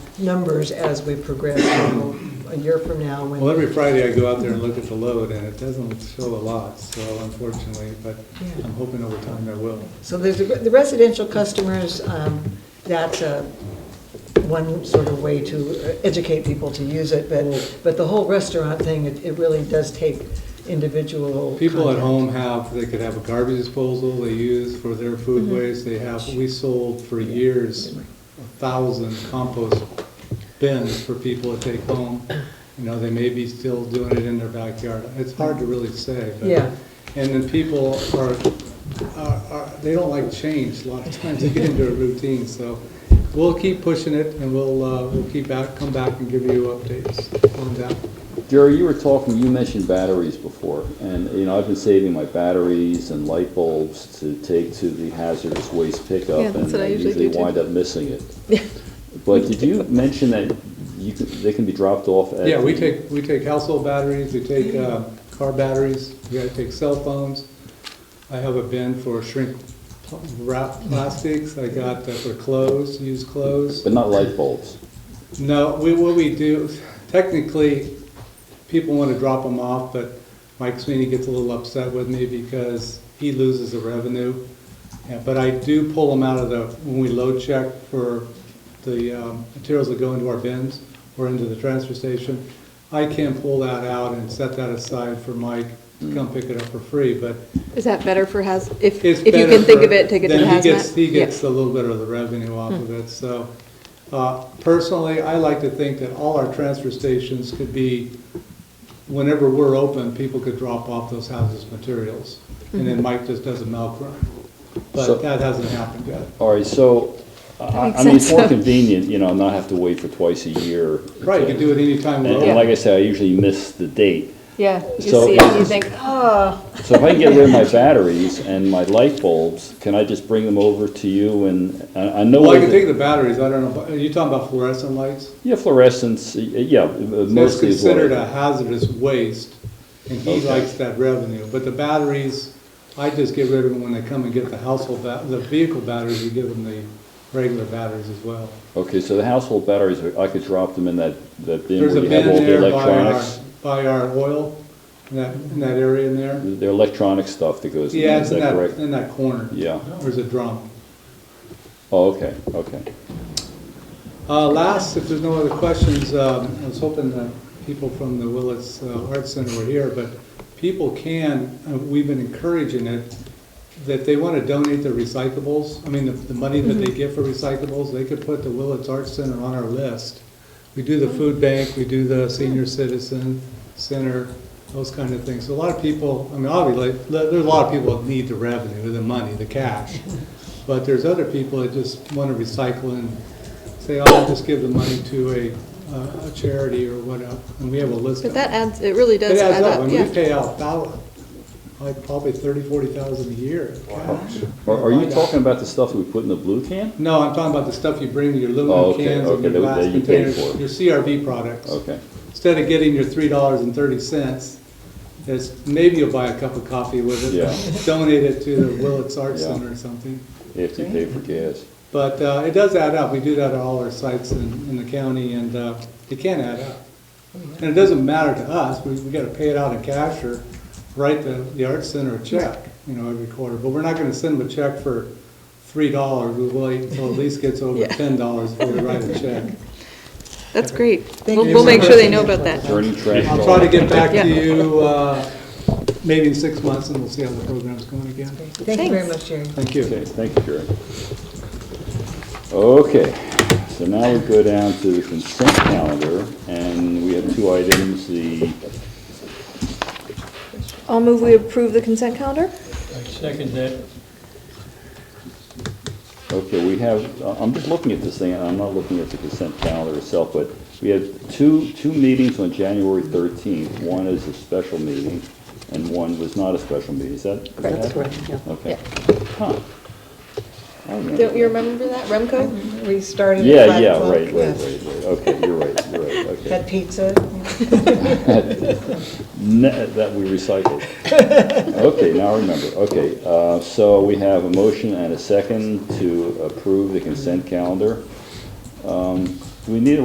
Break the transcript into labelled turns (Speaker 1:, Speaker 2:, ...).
Speaker 1: numbers as we progress, you know, a year from now, when.
Speaker 2: Well, every Friday I go out there and look at the load, and it doesn't show a lot, so unfortunately, but
Speaker 1: Yeah.
Speaker 2: I'm hoping over time there will.
Speaker 1: So there's the the residential customers, um, that's a, one sort of way to educate people to use it, but, but the whole restaurant thing, it, it really does take individual.
Speaker 2: People at
Speaker 1: contact.
Speaker 2: home have, they could have a garbage disposal they use for their food waste, they have, we sold for years a thousand compost bins for people to take home. You know, they may be still doing it in their backyard, it's hard to really say, but.
Speaker 1: Yeah.
Speaker 2: And then people are, are, are- they don't like change, a lot of times they get into a routine, so we'll keep pushing it and we'll, uh, we'll keep out, come back and give you updates on that.
Speaker 3: Jerry, you were talking, you mentioned batteries before, and, you know, I've been saving my batteries and light bulbs to take to the hazardous waste pickup.
Speaker 4: Yeah, that's what
Speaker 3: And
Speaker 4: I usually do,
Speaker 3: I
Speaker 4: too.
Speaker 3: usually wind up missing it. But did you mention that you, can- they can be dropped off at?
Speaker 2: Yeah, we
Speaker 3: the-
Speaker 2: take, we take household batteries, we take uh, car batteries, we gotta take cell phones. I have a bin for shrink pl- wrap plastics, I got that for clothes, used clothes.
Speaker 3: But not light bulbs?
Speaker 2: No, we, what we do, technically, people wanna drop them off, but Mike Sweeney gets a little upset with me because he loses the revenue. Yeah, But I do pull them out of the, when we load check for the um, materials that go into our bins or into the transfer station, I can pull that out and set that aside for Mike to come pick it up for free, but
Speaker 4: Is that better for haz, if,
Speaker 2: it's
Speaker 4: if you
Speaker 2: better
Speaker 4: can think
Speaker 2: for-
Speaker 4: of it, take it to
Speaker 2: then he gets-
Speaker 4: hazmat?
Speaker 2: He
Speaker 4: Yeah.
Speaker 2: gets a little bit of the revenue off of it, so. uh, Personally, I like to think that all our transfer stations could be, whenever we're open, people could drop off those houses' materials. And
Speaker 4: Mm-hmm.
Speaker 2: then Mike just does a milk run.
Speaker 3: So-
Speaker 2: But that hasn't happened yet.
Speaker 3: All right, so, I,
Speaker 4: makes
Speaker 3: I mean, it's
Speaker 4: sense.
Speaker 3: more convenient, you know, not have to wait for twice a year.
Speaker 2: Right, you can do it anytime
Speaker 3: And
Speaker 2: we're
Speaker 3: and
Speaker 2: open.
Speaker 3: like I said, I usually miss the date.
Speaker 4: Yeah, you
Speaker 3: So-
Speaker 4: see it, and you think, oh,
Speaker 3: So if I can get rid of my batteries and my light bulbs, can I just bring them over to you and, I, I know.
Speaker 2: Well, I
Speaker 3: that-
Speaker 2: can take the batteries, I don't know, are you talking about fluorescent lights?
Speaker 3: Yeah, fluorescence, y- yeah, uh,
Speaker 2: That's
Speaker 3: mostly is what
Speaker 2: considered a
Speaker 3: I-
Speaker 2: hazardous waste, and he
Speaker 3: Okay.
Speaker 2: likes that revenue. But the batteries, I just get rid of them when they come and get the household, ba- the vehicle batteries, we give them the regular batteries as well.
Speaker 3: Okay, so the household batteries, are- I could drop them in that, that bin
Speaker 2: There's
Speaker 3: where
Speaker 2: a
Speaker 3: you have
Speaker 2: bin
Speaker 3: all the
Speaker 2: there by uh, our,
Speaker 3: electronics.
Speaker 2: by our oil, in that, in that area in there.
Speaker 3: The electronic stuff that goes in,
Speaker 2: Yeah,
Speaker 3: there, is
Speaker 2: it's in
Speaker 3: that
Speaker 2: that,
Speaker 3: correct?
Speaker 2: in that corner.
Speaker 3: Yeah.
Speaker 2: There's a drum.
Speaker 3: Oh, okay, okay.
Speaker 2: Uh, Last, if there's no other questions, um, I was hoping that people from the Willits uh, Arts Center were here, but people can, uh, we've been encouraging it, that they want to donate their recyclables. I mean, the- the money that they get for recyclables, they could put the Willits Arts Center on our list. We do the food bank, we do the senior citizen center, those kind of things. So a lot of people, I mean, obviously, there there are a lot of people that need the revenue, the money, the cash. But there's other people that just want to recycle and say, oh, I'll just give the money to a, uh, a charity or whatever. And we have a list
Speaker 4: but
Speaker 2: of.
Speaker 4: that adds, it really
Speaker 2: It
Speaker 4: does
Speaker 2: adds
Speaker 4: add
Speaker 2: up. I
Speaker 4: up,
Speaker 2: mean, we
Speaker 4: yeah.
Speaker 2: pay out about, like, probably thirty, forty thousand a year. in cash.
Speaker 3: Are, are
Speaker 2: Why
Speaker 3: you
Speaker 2: not?
Speaker 3: talking about the stuff we put in the blue can?
Speaker 2: No, I'm talking about the stuff you bring, your
Speaker 3: Oh,
Speaker 2: aluminum
Speaker 3: okay,
Speaker 2: cans
Speaker 3: okay,
Speaker 2: and your
Speaker 3: that-
Speaker 2: glass
Speaker 3: that you pay
Speaker 2: containers,
Speaker 3: for.
Speaker 2: your CRV products.
Speaker 3: Okay,
Speaker 2: Instead of getting your three dollars and thirty cents, it's, maybe you'll buy a cup of coffee with it.
Speaker 3: Yeah.
Speaker 2: Donate it to the Willits Arts
Speaker 3: Yeah.
Speaker 2: Center or something.
Speaker 3: if you pay for gas.
Speaker 2: But uh, it does add up. We do that at all our sites in, in the county, and uh, it can add up. And it doesn't matter to us. We, we gotta pay it out in cash or write the, the Arts Center a check, you know, every quarter. But we're not gonna send them a check for three dollars. We'll wait until it at least gets over
Speaker 4: Yeah.
Speaker 2: ten dollars before we write a check.
Speaker 4: That's great.
Speaker 1: Thank
Speaker 4: We'll,
Speaker 1: you
Speaker 4: we'll
Speaker 1: so
Speaker 4: make sure they
Speaker 1: much.
Speaker 4: know about that.
Speaker 3: Turning trash.
Speaker 2: I'll try to get back to you, uh, maybe in six months, and we'll see how the program's going again.
Speaker 1: Thank you very much, Jerry.
Speaker 2: Thank you.
Speaker 3: Okay, thank you, Jerry. Okay, so now we go down to the consent calendar, and we have two items, the
Speaker 4: I'll move we approve the consent calendar?
Speaker 5: I second that.
Speaker 3: Okay, we have, I- I'm just looking at this thing, and I'm not looking at the consent calendar itself, but we have two, two meetings on January 13th. One is a special meeting, and one was not a special meeting, is that?
Speaker 1: That's correct, yeah.
Speaker 3: Okay. Huh. I remember.
Speaker 4: Don't you remember that, Remco?
Speaker 1: We started at
Speaker 3: Yeah,
Speaker 1: five
Speaker 3: yeah,
Speaker 1: o'clock,
Speaker 3: right, right, right,
Speaker 1: yes.
Speaker 3: right, okay, you're right, you're right, okay.
Speaker 1: Had pizza,
Speaker 3: Ne- That we recycled. Okay, now I remember, okay, uh, so we have a motion and a second to approve the consent calendar. Um, Do we need a